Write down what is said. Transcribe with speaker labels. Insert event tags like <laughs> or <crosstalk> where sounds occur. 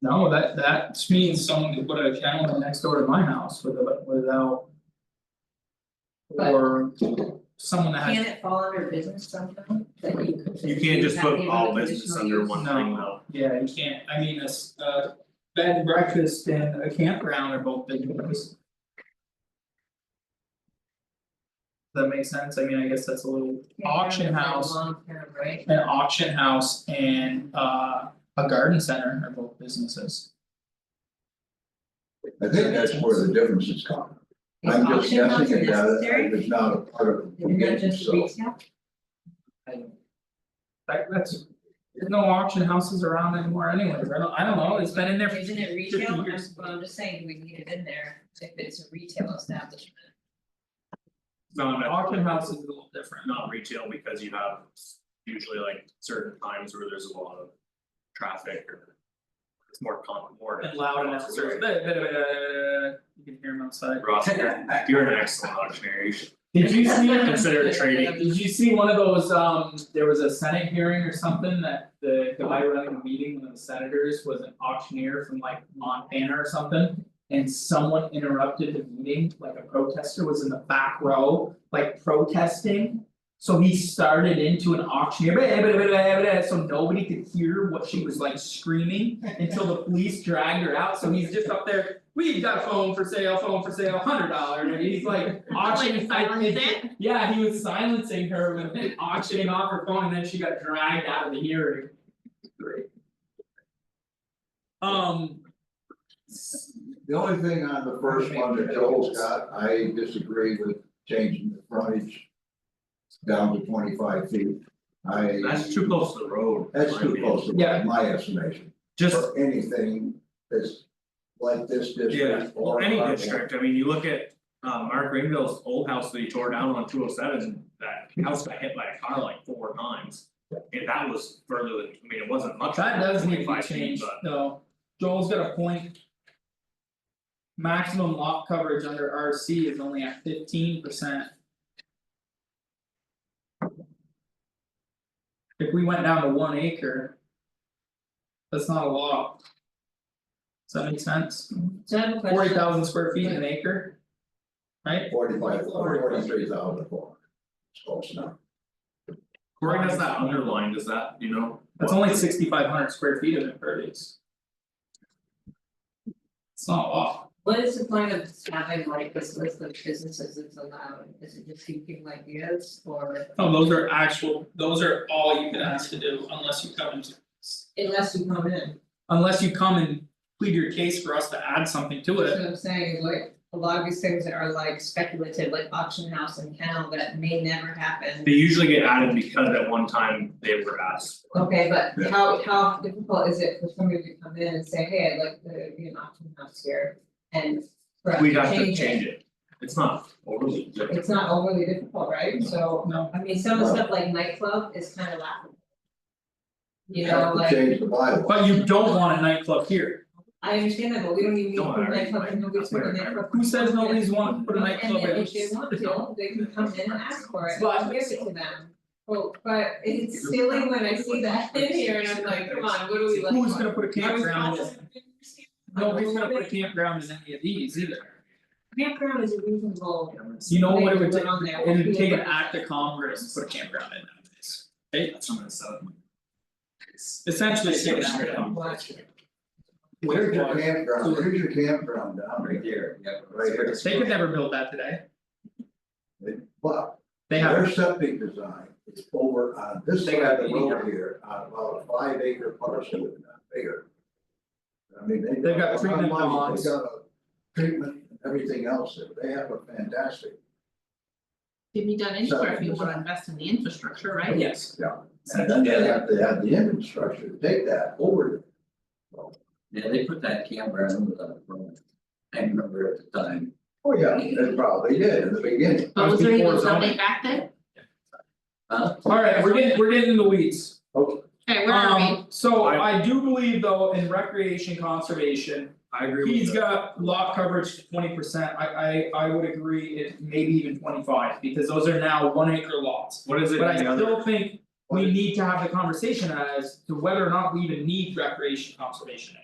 Speaker 1: No, that that just means someone could put a kennel next door to my house with a without.
Speaker 2: But-
Speaker 1: Or someone that
Speaker 2: Can
Speaker 1: has,
Speaker 2: it fall under business sometime that you could?
Speaker 3: Uh, You can't just put
Speaker 2: have
Speaker 3: all
Speaker 2: the
Speaker 3: business
Speaker 2: conditional
Speaker 3: under
Speaker 2: use?
Speaker 3: one thing though.
Speaker 1: yeah, you can't, I mean, a s- a bed and breakfast and a campground are both big ones. That makes sense, I mean, I guess that's a little
Speaker 2: Yeah,
Speaker 1: auction
Speaker 2: that's like
Speaker 1: house,
Speaker 2: Long term, right?
Speaker 1: an auction house and uh a garden center are both businesses.
Speaker 4: I think that's where the difference is coming. I'm just
Speaker 2: Is auction house
Speaker 4: guessing about it,
Speaker 2: necessary?
Speaker 4: it was not a part of the
Speaker 2: Isn't that
Speaker 4: beginning,
Speaker 2: just
Speaker 4: so.
Speaker 2: retail?
Speaker 1: I. That that's, there's no auction houses around anymore anyways, I don't, I don't know, it's been in there for
Speaker 2: Isn't it
Speaker 1: 50
Speaker 2: retail? I'm,
Speaker 1: years.
Speaker 2: well, I'm just saying, we need it in there if it's a retail establishment.
Speaker 3: No, no.
Speaker 1: Auction house is a little different,
Speaker 3: Not retail because you have usually like certain times where there's a lot of traffic or. It's more con, more.
Speaker 1: and loud enough, so
Speaker 3: <laughs>
Speaker 1: it's a bit, bit, bit, uh, you can hear them outside.
Speaker 3: Ross, you're you're an excellent auctioneer, you should
Speaker 1: Did you see,
Speaker 3: consider trading.
Speaker 1: did you see one of those, um, there was a senate hearing or something that the guy running the meeting, one of the senators was an auctioneer from like Montana or something. And someone interrupted the meeting, like a protester was in the back row, like protesting. So he started into an auctioneer, "Bah, bah, bah, bah, bah," so nobody could hear what she was like screaming until the police dragged her out, so he's just up there. We've got a phone for sale, phone for sale, hundred dollars, and he's <laughs> like auctioning, I-
Speaker 2: silence it?
Speaker 1: yeah, he was silencing her with auctioning off her phone, and then she got dragged out of the hearing. Great. Um. s-
Speaker 4: The only thing on the first one that Joel's got, I disagree with changing the frontage down to twenty-five feet. I.
Speaker 3: That's too close to the road. in
Speaker 4: That's
Speaker 3: my
Speaker 4: too
Speaker 3: opinion.
Speaker 4: close to
Speaker 1: Yeah.
Speaker 4: my estimation,
Speaker 3: Just
Speaker 4: for anything that's like this
Speaker 3: Yeah,
Speaker 4: district
Speaker 3: well,
Speaker 4: or.
Speaker 3: any district, I mean, you look at, um, Mark Greenville's old house that he tore down on two oh seven, that house got hit by a car like four times. And that was further than, I mean, it wasn't much.
Speaker 1: That does need to be
Speaker 3: 25 feet,
Speaker 1: changed,
Speaker 3: but
Speaker 1: though, Joel's got a point. Maximum lot coverage under RC is only at fifteen percent. If we went down to one acre. That's not a lot. Does that make sense?
Speaker 2: So I have a question.
Speaker 1: Forty thousand square feet an acre? Right?
Speaker 4: Forty-five, forty-three thousand four. It's close enough.
Speaker 3: Cory has that underlined, is that, you know?
Speaker 1: That's
Speaker 3: what-
Speaker 1: only sixty five hundred square feet of impervious. It's not a lot.
Speaker 2: What is the point of having like this list of businesses that's allowed? Is it just keeping like yes or
Speaker 3: Oh,
Speaker 1: No, those are actual, those are all you can ask to do unless you come and,
Speaker 2: unless you come in?
Speaker 1: unless you come and plead your case for us to add something to
Speaker 2: That's
Speaker 1: it.
Speaker 2: what I'm saying is like a lot of these things that are like speculative, like auction house and kennel that may never happen.
Speaker 3: They usually get added because at one time they were asked.
Speaker 2: Okay, but
Speaker 4: Yeah.
Speaker 2: how how difficult is it for somebody to come in and say, hey, I'd like to be an auction house here and for us
Speaker 3: We'd
Speaker 2: to
Speaker 3: have to
Speaker 2: change it?
Speaker 3: change it. It's not overly difficult.
Speaker 2: It's not overly difficult, right? So,
Speaker 1: No,
Speaker 2: I mean, some of the
Speaker 4: No.
Speaker 2: stuff like nightclub is kind of laughable. You know,
Speaker 4: Have to
Speaker 2: like,
Speaker 4: Change the bylaw.
Speaker 1: but you don't want a nightclub here.
Speaker 2: I understand that, but we don't even need to
Speaker 3: Don't
Speaker 2: put a
Speaker 3: worry,
Speaker 2: nightclub,
Speaker 3: like,
Speaker 2: and nobody's
Speaker 3: that's
Speaker 2: putting a
Speaker 3: where I-
Speaker 2: nightclub.
Speaker 1: Who says nobody's wanting to put a
Speaker 2: And
Speaker 1: nightclub
Speaker 2: then
Speaker 1: in?
Speaker 2: if they
Speaker 1: <laughs>
Speaker 2: want to, they can come in and ask for it,
Speaker 1: But-
Speaker 2: and give it to them. Well, but it's silly when I see that in here and I'm like, come on, what do we like?
Speaker 1: Who's gonna put a
Speaker 2: Are we
Speaker 1: campground in?
Speaker 2: supposed to-
Speaker 1: Nobody's gonna put a campground in any of these either.
Speaker 2: Campground is a reasonable.
Speaker 1: You know what it would take,
Speaker 2: thing to put on there.
Speaker 1: it would take an act of Congress to put a campground in nowadays. Hey,
Speaker 3: That's what I'm gonna set up.
Speaker 1: essentially, it's taking an act of Congress.
Speaker 2: Watch.
Speaker 4: Here's your campground, here's your campground down right there, right here.
Speaker 1: They could never build that today.
Speaker 4: But
Speaker 1: They have,
Speaker 4: their septic design is over on this
Speaker 1: They
Speaker 4: side
Speaker 1: got
Speaker 4: of the
Speaker 1: eighty
Speaker 4: road here, on about a five acre parcel, if not bigger. I mean, they.
Speaker 1: They've got treatment ponds.
Speaker 4: They got a treatment, and everything else, there. they have a fantastic,
Speaker 5: Can be done anywhere if you
Speaker 4: Seven
Speaker 5: wanna
Speaker 4: percent.
Speaker 5: invest in the infrastructure, right?
Speaker 1: yes,
Speaker 4: and then they have to have the infrastructure to take that over.
Speaker 6: Yeah, they put that camera in with a phone. I remember at the time.
Speaker 4: Oh, yeah, they probably did in the beginning,
Speaker 1: That
Speaker 5: But
Speaker 1: was
Speaker 5: was there
Speaker 1: before
Speaker 5: even
Speaker 1: zoning.
Speaker 5: something back then?
Speaker 6: Uh,
Speaker 1: alright, we're getting, we're getting in the weeds.
Speaker 5: Okay, where are we?
Speaker 1: Um, so
Speaker 3: I-
Speaker 1: I do believe though in recreation conservation,
Speaker 3: I agree with
Speaker 1: he's
Speaker 3: that.
Speaker 1: got lot coverage to twenty percent, I I I would agree it maybe even twenty five, because those are now one acre lots.
Speaker 3: What is it,
Speaker 1: But I
Speaker 3: in the other,
Speaker 1: still think we need to have the conversation as to whether or not we even need recreation conservation.